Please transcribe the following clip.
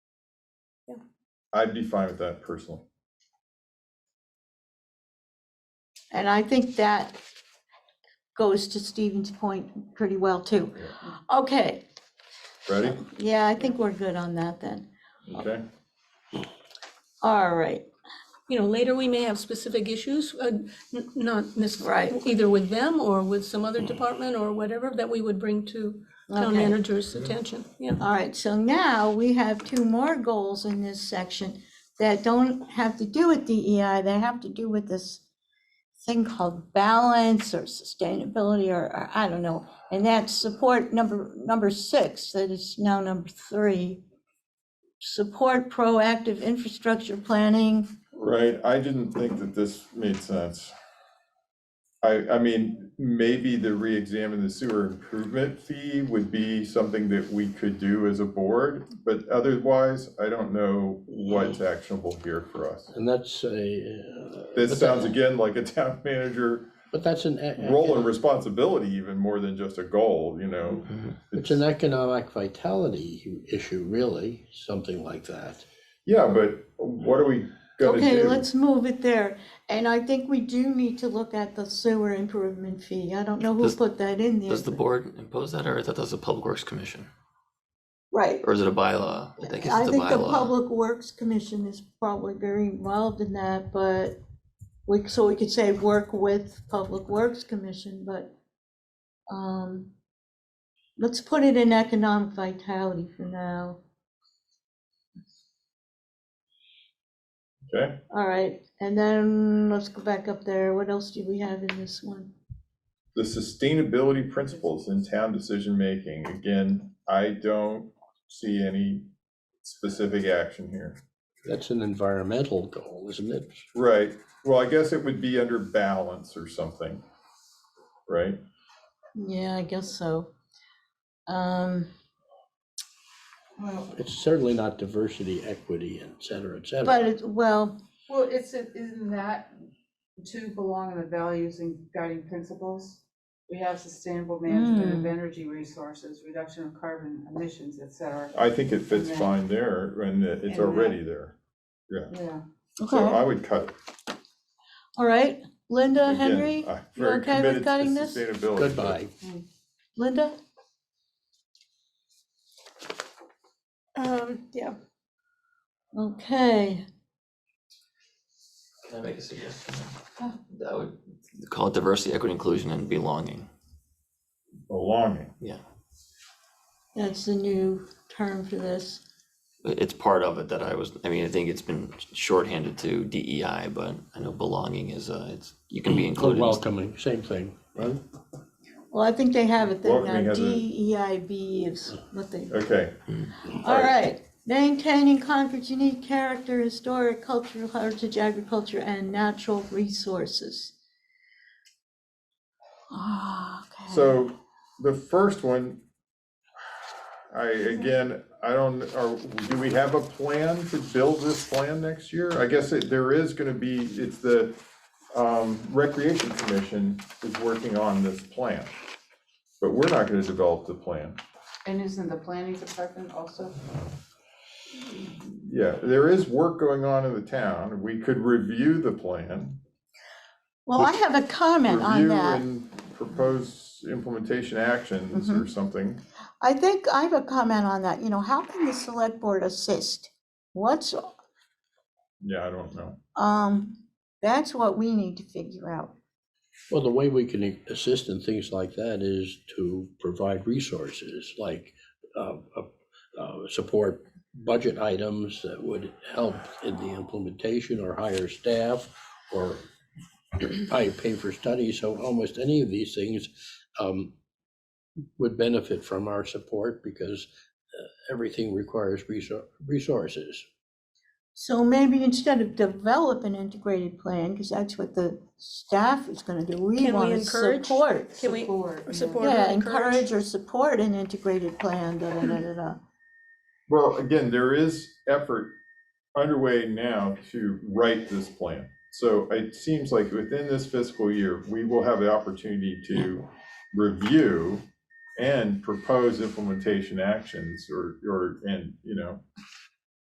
I'd be fine with that personally. And I think that goes to Stephen's point pretty well too. Okay, Ready? yeah, I think we're good on that then. Okay, All right, You know, later we may have specific issues, uh, n- not Right. Mm. necessarily, either with them or with some other department or whatever, that we would bring to town Okay. manager's attention, yeah. all right, so now we have two more goals in this section that don't have to do with DEI, they have to do with this thing called balance or sustainability or, or I don't know. And that's support number, number six, that is now number three. Support proactive infrastructure planning. right, I didn't think that this made sense. I, I mean, maybe the re-examine the sewer improvement fee would be something that we could do as a board, but otherwise, I don't know what's actionable here for us. And that's a. uh, This but sounds that- again like a town manager But that's an. e- role and responsibility even more than just a goal, you know? It's an economic vitality issue, really, something like that. Yeah, but what are we gonna do? Okay, let's move it there. And I think we do need to look at the sewer improvement fee. I don't know who Does- put that in there. Does the board impose that, or is that does the Public Works Commission, Right. or is it a bylaw? I think it's I the think the bylaw. Public Works Commission is probably very involved in that, but we, so we could say work with Public Works Commission, but um, let's put it in economic vitality for now. Okay, All right, and then let's go back up there. What else do we have in this one? the sustainability principles in town decision-making, again, I don't see any specific action here. That's an environmental goal, isn't it? Right, well, I guess it would be under balance or something, right? Yeah, I guess so. Um, Well, It's certainly not diversity, equity, and et cetera, et cetera. But, it- well, well, it's, isn't that to belong in the values and guiding principles? We have sustainable management of energy resources, reduction of carbon emissions, et cetera. I think it fits Yeah. fine there, and it's And that- already there. Yeah, Yeah, so I would cut it. all right, Linda, Again, uh, Henry, I'm you very okay committed to with cutting this? sustainability. Goodbye. Linda? Um, yeah. Okay, Can I make a suggestion? That would call it diversity, equity, inclusion, and belonging. Belonging, Yeah, that's the new term for this. It- it's part of it that I was. I mean, I think it's been shorthanded to DEI, but I know belonging is. Uh, it's you can be Or included. in- welcoming, same thing, right? Well, I think they have it there Welcoming now, has a- DEIB is what they, okay, all right. Maintaining Concord's unique character, historic, cultural heritage, agriculture, and natural resources. Ah, Okay. So the first one, I, again, I don't, are, do we have a plan to build this plan next year? I guess it- there is gonna be, it's the um, Recreation Commission is working on this plan. But we're not gonna develop the plan. and isn't the planning department also? Yeah, there is work going on in the town. We could review the plan. Well, I have a comment on Review that. Mm-hmm. and propose implementation actions or something. I think I have a comment on that, you know, how can the select board assist? What's, Yeah, I don't know. um, that's what we need to figure out. Well, the way we can assist in things like that is to provide resources like uh, uh, uh, support budget items that would help in the implementation or hire staff or I pay for studies, so almost any of these things um, would benefit from our support because uh, everything requires resou- resources. So maybe instead of develop an integrated plan, because that's what the staff is gonna do, we Can we wanna encourage? support. Can we Support, yeah. support or Yeah, encourage or support an integrated plan, da, da, da, da, da. Well, again, there is effort underway now to write this plan. So it seems like within this fiscal year, we will have the opportunity to review and propose implementation actions or, or, and, you know,